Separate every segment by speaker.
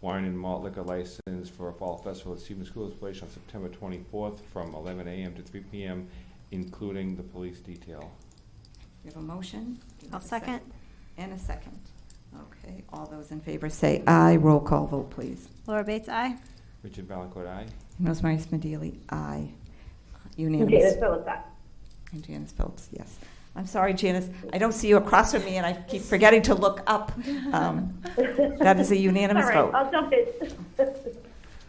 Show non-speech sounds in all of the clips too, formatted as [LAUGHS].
Speaker 1: wine and malt liquor license for a fall festival at Stevens School is placed on September twenty-fourth from eleven AM to three PM, including the police detail.
Speaker 2: We have a motion?
Speaker 3: I'll second.
Speaker 2: And a second. Okay, all those in favor say aye. Roll call vote, please.
Speaker 3: Laura
Speaker 2: [LAUGHS]
Speaker 3: Bates, aye.
Speaker 1: Richard Valencourt, aye?
Speaker 2: Rosemary Smedili, aye. Unanimous.
Speaker 4: Janice Phillips, aye.
Speaker 2: And Janice Phillips, yes. I'm sorry, Janice, I don't see you across from me, and I keep forgetting to look up. Um, That is a unanimous
Speaker 4: All right,
Speaker 2: vote.
Speaker 4: I'll jump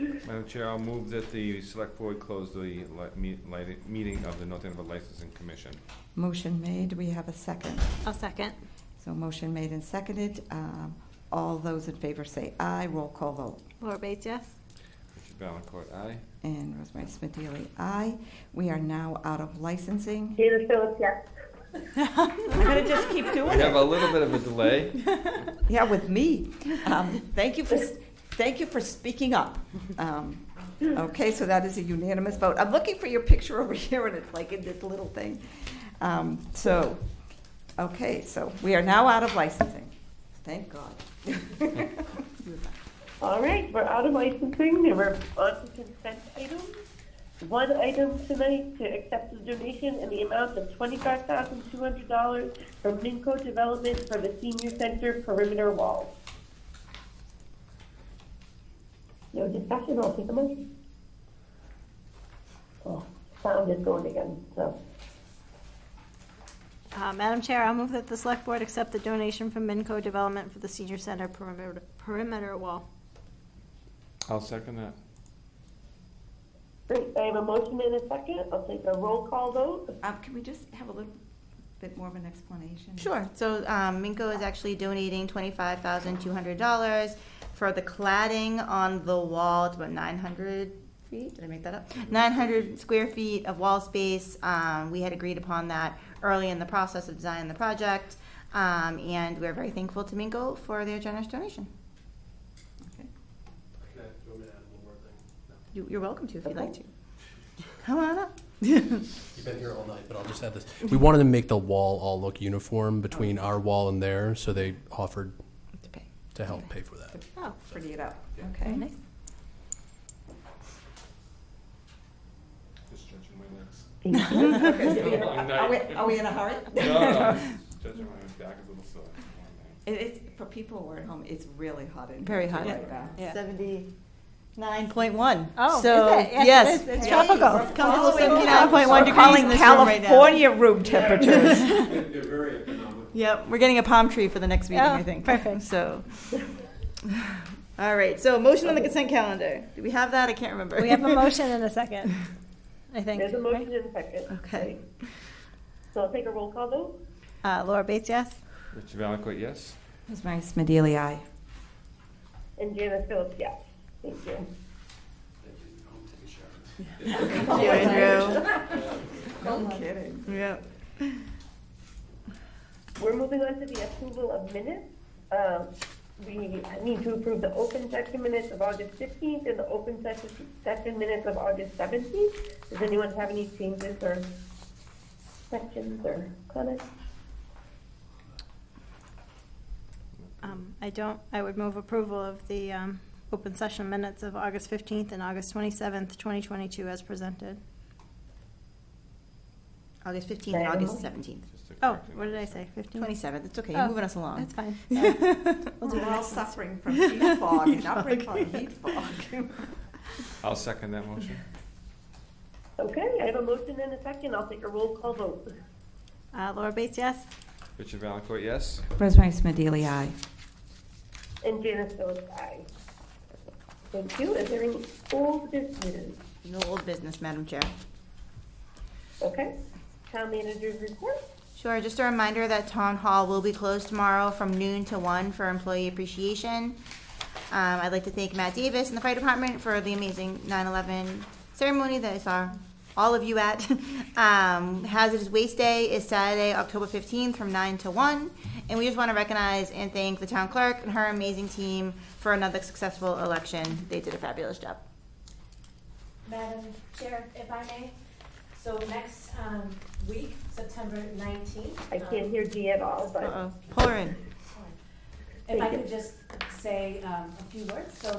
Speaker 4: in.
Speaker 1: Madam Chair, I'll move that the select board close the li- me- li- meeting of the North Andover Licensing Commission.
Speaker 2: Motion made, we have a second.
Speaker 3: I'll second.
Speaker 2: So motion made and seconded. Um, All those in favor say aye. Roll call vote.
Speaker 3: Laura Bates, yes.
Speaker 1: Richard Valencourt, aye?
Speaker 2: And Rosemary Smedili, aye. We are now out of licensing.
Speaker 4: Janice Phillips, yes.
Speaker 2: I'm going to just keep
Speaker 1: We
Speaker 2: doing
Speaker 1: have
Speaker 2: it.
Speaker 1: a little bit of a delay.
Speaker 2: Yeah, with me. Um, Thank you for, thank you for speaking up. Um, Okay, so that is a unanimous vote. I'm looking for your picture over [LAUGHS] here, and it's like in this little thing. Um, So, okay, so we are now out of licensing. Thank God.
Speaker 4: All right, we're out of licensing, and we're on to consent items. One item tonight to accept a donation in the amount of twenty-five thousand two hundred dollars from Minco Development for the senior center perimeter wall. No discussion, I'll take a motion. Oh, sound is going again, so.
Speaker 3: Uh, Madam Chair, I'll move that the select board accept the donation from Minco Development for the senior center perimeter- perimeter wall.
Speaker 1: [LAUGHS] I'll second that.
Speaker 4: Great, I have a motion and a second, I'll take a roll call vote.
Speaker 2: Um, Can we just have a little bit more of an explanation?
Speaker 5: Sure. So um, Minko is actually donating twenty-five thousand two hundred dollars for the cladding on the wall. It's about nine hundred feet. Did I make that up? Nine hundred square feet of wall space. Um, we had agreed upon that early in the process of designing the project, um, and we're very thankful to Minko for their generous donation.
Speaker 2: Okay.
Speaker 6: Can I, do you want me to add one more thing? No.
Speaker 5: You, you're welcome to if you'd like to. Come on up.
Speaker 6: You've been here all night, but I'll just add this. We wanted to make the wall all look uniform between our wall and theirs, so they offered
Speaker 5: Oh. To pay.
Speaker 6: to help pay for that.
Speaker 3: Oh,
Speaker 2: Pretty it up,
Speaker 6: Yeah.
Speaker 2: okay.
Speaker 5: Very nice.
Speaker 1: Just stretching my [LAUGHS] legs.
Speaker 2: Okay.
Speaker 1: Long
Speaker 2: Are we,
Speaker 1: night.
Speaker 2: are we in a hurry?
Speaker 1: Stretching my back is a little sore. Long night.
Speaker 2: It, it's, for people who are at home, it's really hot in here.
Speaker 5: Very hot.
Speaker 2: right now.
Speaker 3: Yeah.
Speaker 5: Seventy-nine point one.
Speaker 3: Oh, is
Speaker 5: so,
Speaker 3: it? Yes, it
Speaker 5: Yes,
Speaker 3: is. It's
Speaker 5: Hey,
Speaker 3: tropical.
Speaker 5: we're
Speaker 3: Comfortable
Speaker 5: Comfortable seventy-nine point one
Speaker 2: We're
Speaker 5: degrees
Speaker 2: calling
Speaker 5: in this room right now.
Speaker 2: California room temperatures.
Speaker 6: They're very economical.
Speaker 5: Yep, we're getting a palm tree for the next meeting, I
Speaker 3: Oh,
Speaker 5: think.
Speaker 3: perfect.
Speaker 5: So, all right, so motion on the consent calendar. Do we have that? I can't remember.
Speaker 3: We
Speaker 2: [LAUGHS]
Speaker 3: have a motion and a second, I think.
Speaker 4: There's a motion
Speaker 3: right?
Speaker 4: and a
Speaker 2: Uh.
Speaker 4: second.
Speaker 5: [LAUGHS] Okay.
Speaker 4: So I'll take a roll call vote.
Speaker 3: Uh, Laura Bates, yes.
Speaker 1: Richard Valencourt, yes?
Speaker 2: Rosemary Smedili, aye.
Speaker 4: And Janice Phillips, yes. Thank you.
Speaker 5: Thank you, Andrew.
Speaker 2: No kidding.
Speaker 5: Yep.
Speaker 4: We're moving on to the approval of minutes. Um, We need to approve the open session minutes of August 15th and the open session session minutes of August 17th. Does anyone have any changes or questions or comments?
Speaker 3: Um, I don't, I would move approval of the um, open session minutes of August 15th and August 27th, 2022 as presented.
Speaker 5: August fifteenth and August seventeenth.
Speaker 1: Just to
Speaker 3: Oh,
Speaker 1: correct me.
Speaker 3: what did I say, 15th?
Speaker 5: Twenty-seventh, it's okay,
Speaker 3: Oh,
Speaker 5: you're moving us along.
Speaker 3: That's fine.
Speaker 2: We're
Speaker 3: do the
Speaker 2: all
Speaker 3: next one.
Speaker 2: suffering from heat fog,
Speaker 5: [LAUGHS] Heat
Speaker 2: not bring
Speaker 5: fog.
Speaker 2: on heat fog.
Speaker 1: I'll second that motion.
Speaker 4: Okay, I have a motion and a second. I'll take a roll call vote.
Speaker 3: Uh, Laura Bates, yes.
Speaker 1: Richard Valencourt, yes?
Speaker 2: Rosemary Smedili, aye.
Speaker 4: And Janice Phillips, aye. Thank you. Is there any old business?
Speaker 5: No old business, Madam Chair.
Speaker 4: Okay. Town manager's report?
Speaker 5: Sure, just a reminder that Town Hall will be closed tomorrow from noon to one for employee appreciation. Um, I'd like to thank Matt Davis and the Fire Department for the amazing 9/11 ceremony that I saw all of you at. Um, Hazardous Waste Day is Saturday, October 15th, from nine to one, And we just want to recognize and thank the town clerk and her amazing team for another successful election. They did a fabulous job.
Speaker 7: Madam Chair, if I may, so next um, week, September 19th.
Speaker 4: I
Speaker 7: um,
Speaker 4: can't hear Dee at all, but.
Speaker 5: Uh-oh, pull her in.
Speaker 7: If I could just say um, a few words. So